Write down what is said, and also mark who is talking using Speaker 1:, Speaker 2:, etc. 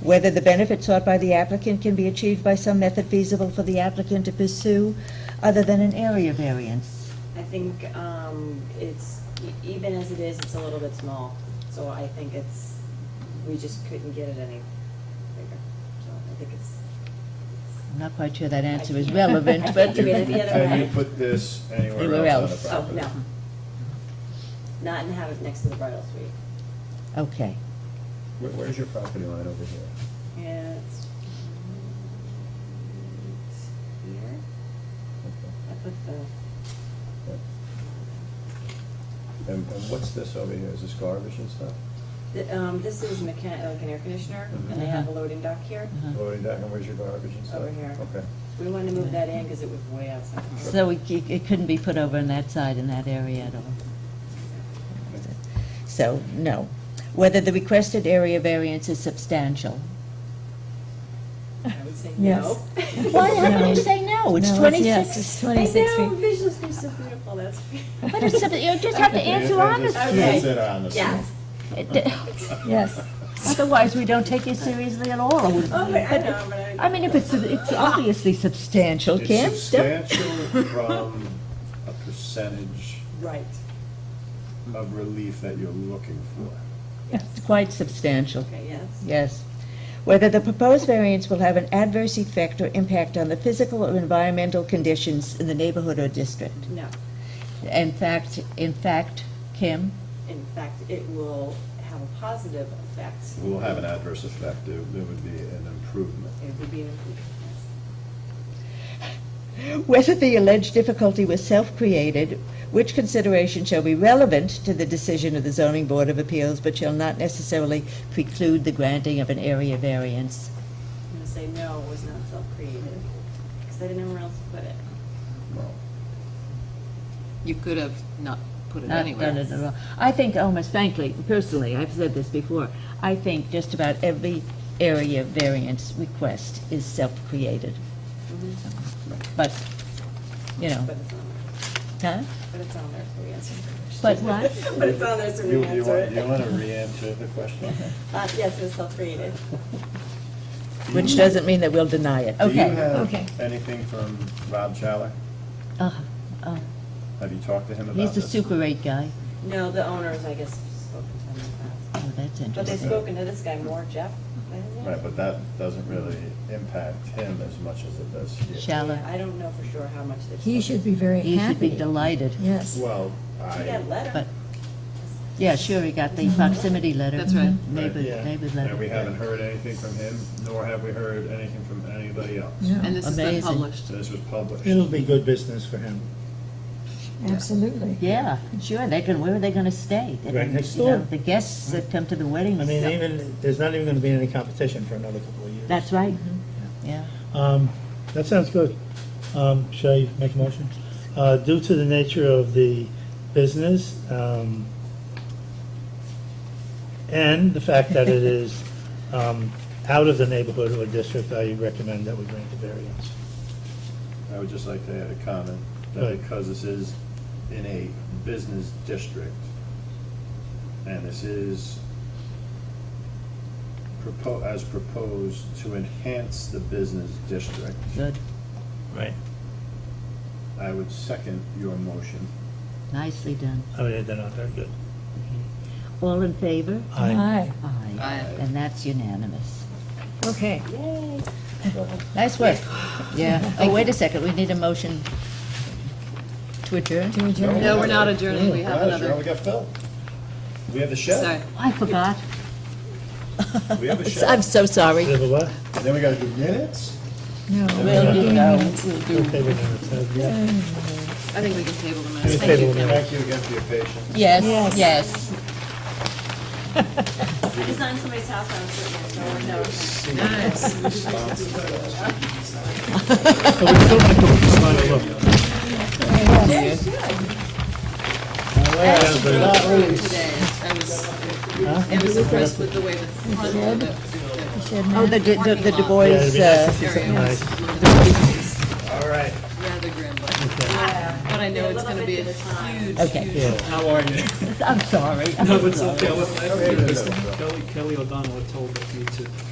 Speaker 1: whether the benefit sought by the applicant can be achieved by some method feasible for the applicant to pursue other than an area variance.
Speaker 2: I think um, it's, e- even as it is, it's a little bit small, so I think it's, we just couldn't get it any bigger, so I think it's.
Speaker 1: I'm not quite sure that answer is
Speaker 2: I-
Speaker 1: relevant,
Speaker 2: I
Speaker 1: but.
Speaker 2: think you made it the other
Speaker 3: Have
Speaker 2: way.
Speaker 3: you put this anywhere
Speaker 1: Anywhere
Speaker 3: else
Speaker 1: else.
Speaker 2: Oh,
Speaker 3: on the
Speaker 2: no.
Speaker 3: property?
Speaker 2: Not and have it next to the bridal suite.
Speaker 1: Okay.
Speaker 3: Where-
Speaker 2: Oh,
Speaker 3: Where's your property line over here?
Speaker 2: Yeah, it's. it's Here,
Speaker 3: Okay.
Speaker 2: I put the,
Speaker 3: Yeah. And, and what's this over here? Is this garbage and stuff?
Speaker 2: the, um, this is mechan, like an air conditioner, and they have a loading dock here.
Speaker 1: Uh-huh.
Speaker 3: Loading dock, and where's your garbage and stuff?
Speaker 2: Over here.
Speaker 3: Mm-hmm. Okay.
Speaker 2: We wanted to move that in because it was way outside.
Speaker 1: So it, it it couldn't be put over on that side in that area at all? So, no. Whether the requested area variance is substantial.
Speaker 2: I would say
Speaker 4: Yes.
Speaker 2: no.
Speaker 1: Why, how can
Speaker 4: No.
Speaker 1: you say no? It's
Speaker 4: No, it's yes,
Speaker 1: 26.
Speaker 4: it's
Speaker 2: I
Speaker 4: 26
Speaker 2: know,
Speaker 4: feet.
Speaker 2: visual is so beautiful, that's.
Speaker 1: But it's, sub- you just have to answer honestly.
Speaker 2: Okay.
Speaker 3: Answer honestly.
Speaker 2: Yes.
Speaker 4: Yes.
Speaker 1: Otherwise, we don't take you seriously at all. It would-
Speaker 2: Oh, but I know, but I.
Speaker 1: I mean, if it's, it's obviously substantial, Kim.
Speaker 3: It's substantial from a percentage
Speaker 2: Right.
Speaker 3: of relief that you're looking for.
Speaker 1: It's quite substantial.
Speaker 2: Okay, yes.
Speaker 1: Yes. Whether the proposed variance will have an adverse effect or impact on the physical or environmental conditions in the neighborhood or district.
Speaker 2: No,
Speaker 1: In fact, in fact, Kim,
Speaker 2: in fact, it will have a positive effect.
Speaker 3: Will have an adverse effect, there there would be an improvement.
Speaker 2: It would be an improvement, yes.
Speaker 1: whether the alleged difficulty was self-created, which consideration shall be relevant to the decision of the zoning board of appeals, but shall not necessarily preclude the granting of an area variance.
Speaker 2: I'm gonna say no, it was not self-created, because I didn't know where else to put it.
Speaker 3: Well,
Speaker 5: You could have not put it
Speaker 1: Not Uh, done
Speaker 5: anywhere.
Speaker 1: it at all. I think almost frankly, personally, I've said this before, I think just about every area variance request is self-created. Mm-hmm. But, you know,
Speaker 2: But it's on there,
Speaker 1: huh?
Speaker 2: but it's on there, so we answered the
Speaker 1: But
Speaker 2: question.
Speaker 1: what?
Speaker 2: But it's on there, so
Speaker 3: You,
Speaker 2: we
Speaker 3: you
Speaker 2: answer
Speaker 3: want, you
Speaker 2: it.
Speaker 3: want to re-answer the question?
Speaker 2: Uh, yes, it was self-created.
Speaker 1: Which doesn't mean that we'll deny it.
Speaker 3: Do you
Speaker 1: Okay.
Speaker 4: okay.
Speaker 3: have anything from Rob Challer?
Speaker 1: Uh, uh,
Speaker 3: Have you talked to him about
Speaker 1: He's
Speaker 3: this?
Speaker 1: the super eight guy.
Speaker 2: No, the owners, I guess, spoken to him in the past.
Speaker 1: Oh, that's
Speaker 2: But they've
Speaker 1: interesting.
Speaker 2: spoken to this guy more, Jeff, isn't it?
Speaker 3: Right, but that doesn't really impact him as much as it does you.
Speaker 1: Shall- Shallow.
Speaker 2: Yeah, I don't know for sure how much they've.
Speaker 4: He should be very
Speaker 1: He should be
Speaker 4: happy.
Speaker 1: delighted.
Speaker 4: Yes.
Speaker 3: Well,
Speaker 2: He got a
Speaker 3: I.
Speaker 2: letter.
Speaker 1: But, yeah, sure, he got the proximity letter. Mm-hmm.
Speaker 5: That's right.
Speaker 1: Neighbor,
Speaker 3: Yeah.
Speaker 1: neighbor
Speaker 3: And we
Speaker 1: letter.
Speaker 3: haven't heard anything from him, nor have we heard anything from anybody else.
Speaker 4: No,
Speaker 5: And this has been
Speaker 1: Amazing.
Speaker 5: published.
Speaker 3: So this was published.
Speaker 6: It'll be good business for him.
Speaker 4: absolutely.
Speaker 1: Yeah, sure, they can, where are they gonna stay? They
Speaker 6: Right
Speaker 1: can-
Speaker 6: next
Speaker 1: you know,
Speaker 6: door.
Speaker 1: The guests that come to the weddings.
Speaker 6: I mean, even, there's not even gonna be any competition for another couple of years.
Speaker 1: That's right, yeah.
Speaker 6: Um, that sounds good. Um, shall I make a motion? Uh, due to the nature of the business, um, and the fact that it is, um, out of the neighborhood or district, I recommend that we grant the variance.
Speaker 3: I would just like to add a comment, that
Speaker 6: Right.
Speaker 3: because this is in a business district, and this is propo, as proposed to enhance the business district,
Speaker 1: Good,
Speaker 6: Right.
Speaker 3: I would second your motion.
Speaker 1: nicely done.
Speaker 6: Oh, yeah, they're not very good.
Speaker 1: All in favor?
Speaker 6: Aye.
Speaker 1: Aye.
Speaker 5: Aye.
Speaker 1: And that's unanimous.
Speaker 4: Okay.
Speaker 2: Yay.
Speaker 1: Nice work. Yeah, oh, wait a second, we need a motion to adjourn?
Speaker 4: Do we adjourn?
Speaker 5: No, we're not adjourning, we have
Speaker 3: We're not adjourning,
Speaker 5: another.
Speaker 3: We got Phil. We have the
Speaker 5: Sorry.
Speaker 3: chef,
Speaker 1: I forgot.
Speaker 3: we have a
Speaker 1: I'm
Speaker 3: chef,
Speaker 1: so sorry.
Speaker 6: Do you have a what?
Speaker 3: and then we gotta do minutes.
Speaker 4: No.
Speaker 1: Well, you know,
Speaker 5: We'll do-
Speaker 6: Table minutes, uh, yeah.
Speaker 5: I think we can table them.
Speaker 6: Table
Speaker 5: Thank you, Kim.
Speaker 6: minutes.
Speaker 3: Thank you again for your patience.
Speaker 1: yes, yes.
Speaker 2: He's on somebody's house, I was sitting there, no one knows.
Speaker 6: So we still have to come on and look.
Speaker 5: Not really today. I was, I was impressed with the way the front of the- the.
Speaker 1: Oh, the, the, the Du
Speaker 5: Parking lot.
Speaker 1: Bois,
Speaker 6: Yeah, it'd be nice to
Speaker 1: uh,
Speaker 6: see
Speaker 5: area
Speaker 6: something
Speaker 5: was
Speaker 6: nice.
Speaker 5: rather
Speaker 3: All right.
Speaker 5: grim, but but I know it's gonna be a huge,
Speaker 1: Okay.
Speaker 5: huge.
Speaker 7: How are you?
Speaker 1: I'm sorry.
Speaker 7: No, it's okay. I was- I
Speaker 3: Okay, then.
Speaker 7: think Mr. Kelly, Kelly O'Donnell had told me to